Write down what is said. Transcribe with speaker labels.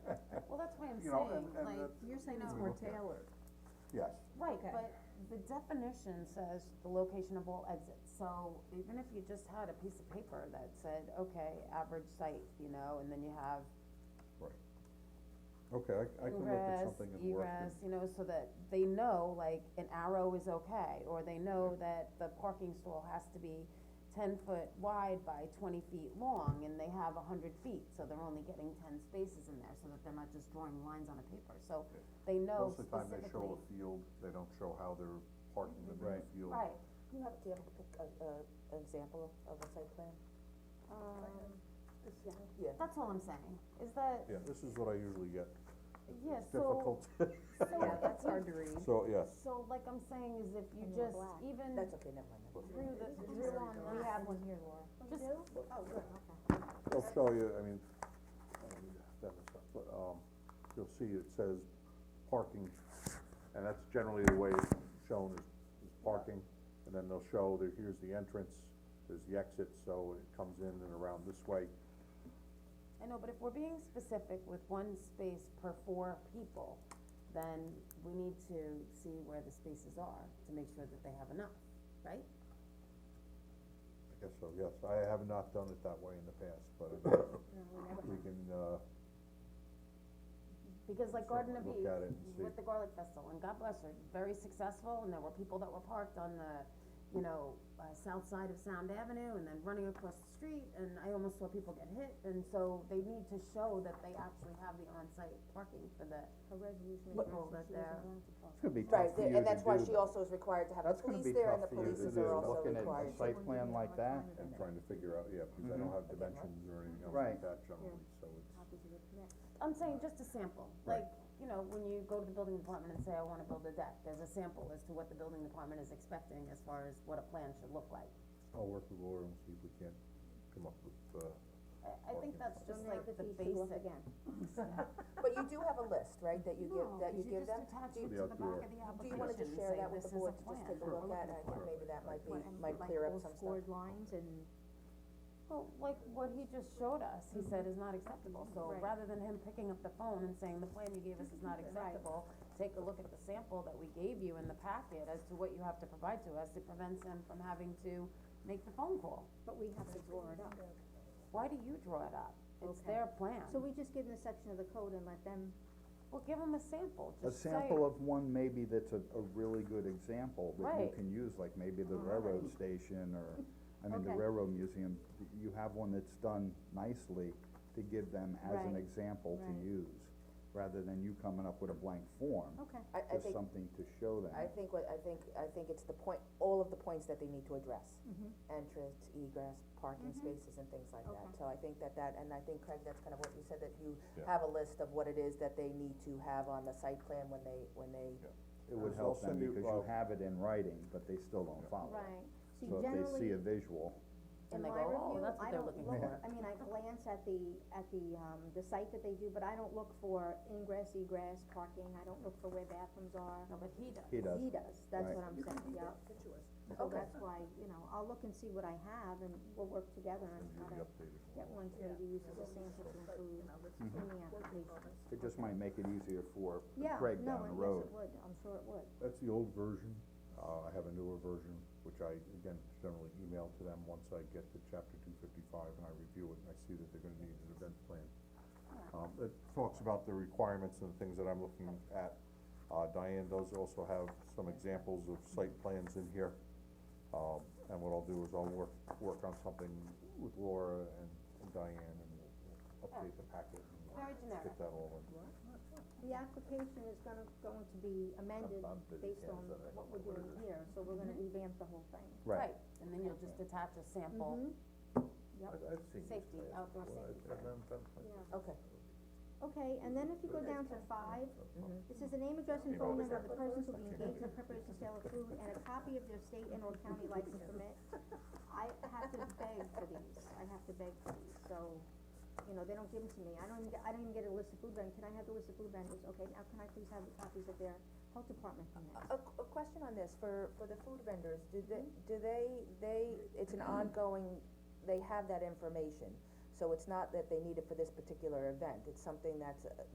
Speaker 1: I'm
Speaker 2: you know,
Speaker 1: saying,
Speaker 2: and- and
Speaker 1: like,
Speaker 2: that-
Speaker 1: you're saying
Speaker 2: we
Speaker 1: it's
Speaker 2: will
Speaker 1: more
Speaker 2: look at it.
Speaker 1: tailored.
Speaker 2: Yes,
Speaker 1: Right,
Speaker 3: Okay.
Speaker 1: but the definition says the location of all exits, so even if you just had a piece of paper that said, okay, average site, you know, and then you have
Speaker 2: okay, I, I can look at
Speaker 1: ingress,
Speaker 2: something and work
Speaker 1: egress,
Speaker 2: it,
Speaker 1: you know, so that they know, like, an arrow is okay, or they know that the parking stall has to be ten foot wide by twenty feet long, and they have a hundred feet, so they're only getting ten spaces in there, so that they're not just drawing lines on a paper, so
Speaker 2: Yeah.
Speaker 1: they know
Speaker 2: most of
Speaker 1: specifically.
Speaker 2: the time they show a field, they don't show how they're parking them in the field.
Speaker 1: Right,
Speaker 3: Do you have, do you have a, pic- a, a, uh, an example of- of a site plan?
Speaker 1: um,
Speaker 3: Yeah. Yeah.
Speaker 1: That's all I'm saying, is that,
Speaker 2: Yeah, this is what I usually get,
Speaker 1: yeah,
Speaker 2: it's
Speaker 1: so,
Speaker 2: difficult,
Speaker 1: so
Speaker 3: Yeah,
Speaker 1: if
Speaker 3: that's
Speaker 1: you-
Speaker 3: hard to read.
Speaker 2: so, yes,
Speaker 1: so like I'm saying is if you
Speaker 3: And you're
Speaker 1: just,
Speaker 3: black.
Speaker 1: even
Speaker 3: That's okay, never mind. never mind.
Speaker 1: through the, through on that.
Speaker 3: We have one here, Laura.
Speaker 1: Just,
Speaker 2: I'll show you, I mean, I don't need that much stuff, but, um, you'll see it says parking, and that's generally the way it's shown is, is parking. And then they'll show that here's the entrance, there's the exit, so it comes in and around this way.
Speaker 1: I know, but if we're being specific with one space per four people, then we need to see where the spaces are to make sure that they have enough, right?
Speaker 2: I guess so, yes, I have not done it that way in the past, but we can, uh,
Speaker 1: Because like Garden of
Speaker 2: Look
Speaker 1: Eve,
Speaker 2: at it and see.
Speaker 1: with the garlic festival, and God bless her, very successful, and there were people that were parked on the, you know, uh, south side of Sound Avenue, and then running across the street, and I almost saw people get hit, and so they need to show that they actually have the on-site parking for the people that they're.
Speaker 4: It's gonna be tough
Speaker 3: Right,
Speaker 4: for
Speaker 3: there-
Speaker 4: you
Speaker 3: and that's why
Speaker 4: to
Speaker 3: she
Speaker 4: do,
Speaker 3: also is required to have the
Speaker 4: that's gonna
Speaker 3: police
Speaker 4: be
Speaker 3: there, and
Speaker 4: tough
Speaker 3: the
Speaker 4: for you to
Speaker 3: polices
Speaker 4: do,
Speaker 3: are also
Speaker 4: looking at a
Speaker 3: required.
Speaker 4: site plan like that,
Speaker 2: I'm trying to figure out, yeah, because I don't have dimensions or anything else like
Speaker 4: Right.
Speaker 2: that generally, so it's.
Speaker 1: I'm saying just a sample,
Speaker 2: Right.
Speaker 1: like, you know, when you go to the building department and say, I wanna build a deck, there's a sample as to what the building department is expecting as far as what a plan should look like.
Speaker 2: I'll work with Laura and see if we can't come up with, uh,
Speaker 1: I, I think that's just like the basic.
Speaker 3: But you do have a list, right, that you give, that you give them? Do you-
Speaker 2: it to the back of
Speaker 3: Do you wanna just share that with the board to just take a look at, and I think maybe that might be, might clear up some stuff.
Speaker 5: lines and.
Speaker 1: Well, like what he just showed us, he said is not acceptable, so
Speaker 5: Right.
Speaker 1: rather than him picking up the phone and saying, the plan you gave us is not acceptable, take a look at the sample that we gave you in the packet as to what you have to provide to us, it prevents him from having to make the phone call.
Speaker 5: But we have to draw it up.
Speaker 1: Why do you draw it up? It's
Speaker 5: Okay.
Speaker 1: their plan.
Speaker 5: So we just give them a section of the code and let them,
Speaker 1: Well, give them a sample,
Speaker 4: a
Speaker 1: just say.
Speaker 4: sample of one maybe that's a, a really good example that you
Speaker 1: Right.
Speaker 4: can use, like maybe the railroad station or, I mean, the
Speaker 5: Okay.
Speaker 4: railroad museum, y- you have one that's done nicely to give them as an
Speaker 5: Right,
Speaker 4: example
Speaker 5: right.
Speaker 4: to use, rather than you coming up with a blank form,
Speaker 5: okay,
Speaker 3: I, I
Speaker 4: just
Speaker 3: think,
Speaker 4: something to show them.
Speaker 3: I think what, I think, I think it's the point, all of the points that they need to address.
Speaker 5: Mm-hmm.
Speaker 3: Entrance, egress, parking spaces and things like that,
Speaker 5: Okay.
Speaker 3: so I think that that, and I think Craig, that's kind of what you said, that you
Speaker 2: Yeah.
Speaker 3: have a list of what it is that they need to have on the site plan when they, when they,
Speaker 4: It would
Speaker 2: I'll
Speaker 4: help them
Speaker 2: send you,
Speaker 4: because
Speaker 2: uh,
Speaker 4: you have it in writing, but they still don't follow it.
Speaker 5: right. See,
Speaker 4: So if they see
Speaker 5: generally,
Speaker 4: a visual,
Speaker 1: And
Speaker 5: in
Speaker 1: they go,
Speaker 5: my
Speaker 1: "Oh,
Speaker 5: review,
Speaker 1: that's what
Speaker 5: I
Speaker 1: they're
Speaker 5: don't
Speaker 1: looking
Speaker 5: look,
Speaker 1: for."
Speaker 5: I mean, I glance at the, at the, um, the site that they do, but I don't look for ingress, egress, parking, I don't look for where bathrooms are.
Speaker 1: No, but he does.
Speaker 4: he does,
Speaker 5: He does, that's
Speaker 4: Right.
Speaker 5: what I'm saying, yeah. So
Speaker 3: Okay.
Speaker 5: that's why, you know, I'll look and see what I have and we'll work together on
Speaker 2: and
Speaker 5: how
Speaker 2: you'll be
Speaker 5: to
Speaker 2: updated.
Speaker 5: get one to maybe use as a sample to include in the application.
Speaker 4: it just might make it easier for
Speaker 5: Yeah,
Speaker 4: Craig
Speaker 5: no,
Speaker 4: down the
Speaker 5: and
Speaker 4: road.
Speaker 5: yes, it would, I'm sure it would.
Speaker 2: That's the old version, uh, I have a newer version, which I, again, generally email to them once I get to chapter two fifty-five and I review it and I see that they're gonna need an event plan. Um, it talks about the requirements and the things that I'm looking at, uh, Diane does also have some examples of site plans in here. Um, and what I'll do is I'll work, work on something with Laura and and Diane and we'll we'll update the packet and
Speaker 1: Very generic.
Speaker 2: get that all in.
Speaker 5: The application is gonna, going to be amended
Speaker 2: I'm busy
Speaker 5: based on
Speaker 2: hands that I don't
Speaker 5: what
Speaker 2: know what it
Speaker 5: we're doing here, so we're gonna revamp the whole thing.
Speaker 4: Right,
Speaker 1: And then you'll just attach a sample,
Speaker 5: Mm-hmm. Yep.
Speaker 2: I- I've seen these
Speaker 1: Safety,
Speaker 2: plans
Speaker 1: outdoor
Speaker 2: before.
Speaker 1: safety
Speaker 2: I've- I've done- done plans.
Speaker 5: Yeah.
Speaker 3: okay,
Speaker 5: Okay, and then if you go down to five,
Speaker 2: 嗯
Speaker 5: this is the name, address, and phone number of the persons who will be engaged in the preparation, sale of food, and a copy of their state and or county license permit. I have to beg for these, I have to beg for these, so, you know, they don't give them to me, I don't even, get- I don't even get a list of food vendors, can I have the list of food vendors, okay, now can I please have the copies of their health department permits?
Speaker 3: A, a question on this, for, for the food vendors, do they, do they, they, it's an ongoing, they have that information. So it's not that they need it for this particular event, it's something that's, uh,